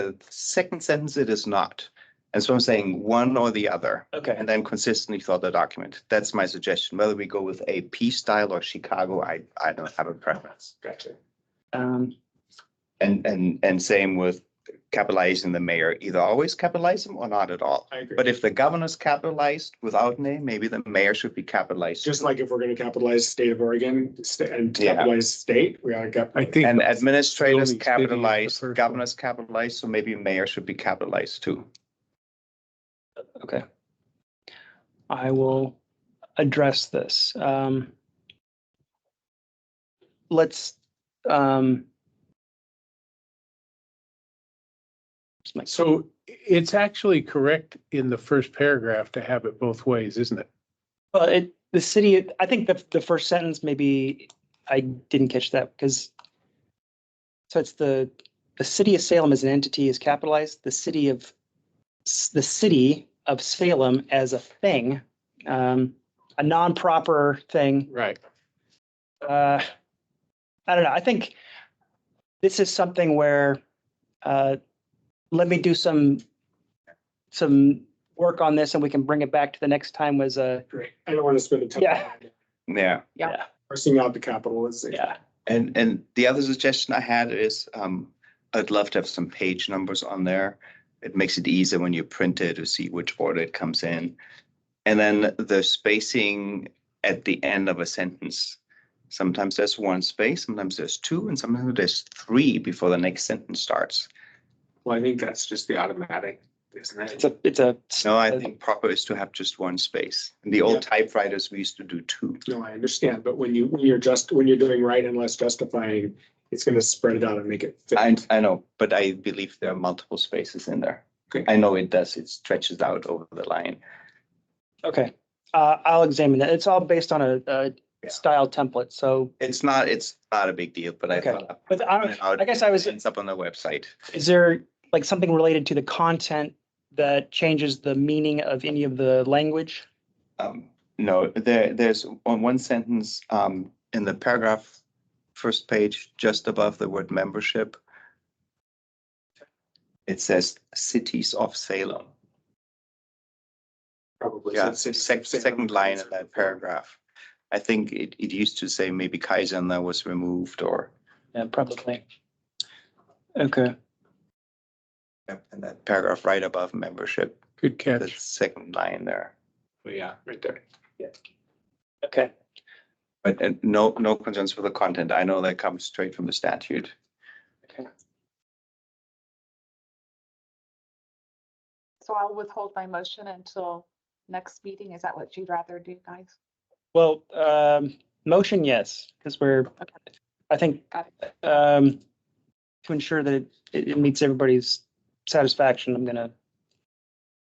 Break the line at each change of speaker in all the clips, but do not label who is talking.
The second sentence, it is not. And so I'm saying one or the other,
Okay,
and then consistently throughout the document. That's my suggestion. Whether we go with AP style or Chicago, I, I don't have a preference.
gotcha. Um,
And, and, and same with capitalizing the mayor, either always capitalize him or not at all.
I agree.
But if the governor's capitalized without name, maybe the mayor should be capitalized.
Just like if we're gonna capitalize state of Oregon sta- and
Yeah.
capitalize state, we ought to cap.
I think-
And administrators
Only city is the
capitalized,
first one.
governors capitalized, so maybe mayor should be capitalized too.
Okay.
I will address this. Um, let's, um,
So it's actually correct in the first paragraph to have it both ways, isn't it?
well, it, the city, I think the, the first sentence, maybe I didn't catch that because so it's the, the city of Salem as an entity is capitalized, the city of, the city of Salem as a thing, um, a non-proper thing
Right.
uh, I don't know. I think this is something where uh, let me do some some work on this, and we can bring it back to the next time. Was a
Great. I don't want to spend a ton. of
Yeah.
time
Yeah.
yeah,
Parsing out the capitalization.
yeah.
And, and the other suggestion I had is, um, I'd love to have some page numbers on there. It makes it easier when you print it to see which order it comes in. And then the spacing at the end of a sentence. Sometimes there's one space, sometimes there's two, and sometimes there's three before the next sentence starts.
Well, I think that's just the automatic, isn't
It's a it's a
No, I think proper is to have just one space. In the old typewriters, we used to do two.
No, I understand, but when you, when you're just, when you're doing right and less justifying, it's gonna spread it out and make it. fit.
I, I know, but I believe there are multiple spaces in there.
Okay.
I know it does, it stretches out over the line.
okay. Uh, I'll examine that. It's all based on a, a
Yeah.
style template. So,
It's not, it's not a big deal, but I
Okay.
thought.
but I, I guess I was.
It's up on the website.
Is there like something related to the content that changes the meaning of any of the language?
Um, no, there, there's on one sentence, um, in the paragraph, first page, just above the word membership. It says cities of Salem.
Probably.
Yeah, sec- second line in that paragraph. I think it, it used to say maybe Kaiser and that was removed or
Yeah, probably. Okay.
in that paragraph right above membership,
Good
the
catch.
second line there.
Yeah, right there.
Okay.
But and no, no concerns with the content. I know that comes straight from the statute.
So I'll withhold my motion until next meeting. Is that what you'd rather do, guys?
Well, um, motion, yes, because we're, I think,
Got
um, to ensure that it, it meets everybody's satisfaction, I'm gonna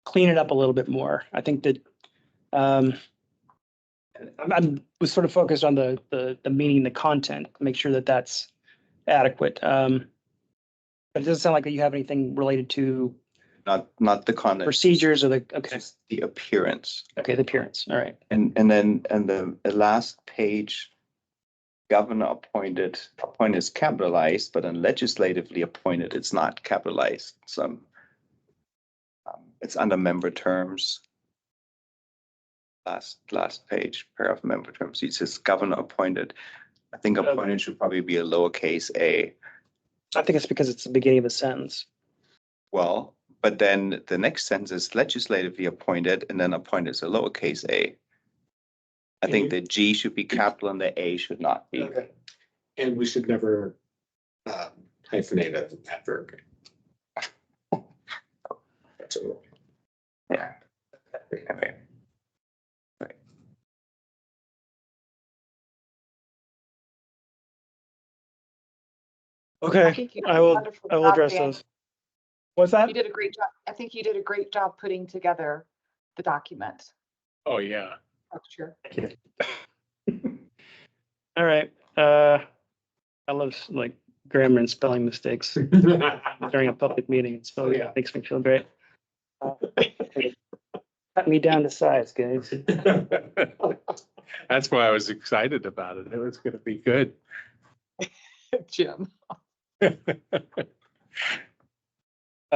clean it up a little bit more. I think that, um, I'm, I'm, was sort of focused on the, the, the meaning, the content, make sure that that's adequate. Um, but it doesn't sound like that you have anything related to
Not, not the content.
procedures or the, okay,
just The appearance.
okay, the appearance, all right.
And, and then, and the the last page, governor appointed, appointed is capitalized, but then legislatively appointed, it's not capitalized. Some, um, it's under member terms. Last, last page, pair of member terms, it says governor appointed. I think
Okay.
appointed should probably be a lowercase a.
I think it's because it's the beginning of a sentence.
Well, but then the next sentence is legislatively appointed and then appointed is a lowercase a. I think
Mhm.
the G should be capital and the A should not be.
Okay. And we should never um, hyphenate an adverb. That's a rule.
Yeah. Okay.
Okay.
think you
I
did a
will-
wonderful
I will
job,
address
Dan.
those. What's that?
You did a great job. I think you did a great job putting together the document
Oh, yeah.
structure.
All right. Uh, I love like grammar and spelling mistakes during a public meeting. It's so
Yeah.
yeah, makes me feel great. Uh, Cut me down to size, guys.
That's why I was excited about it. It was going to be good.
Jim.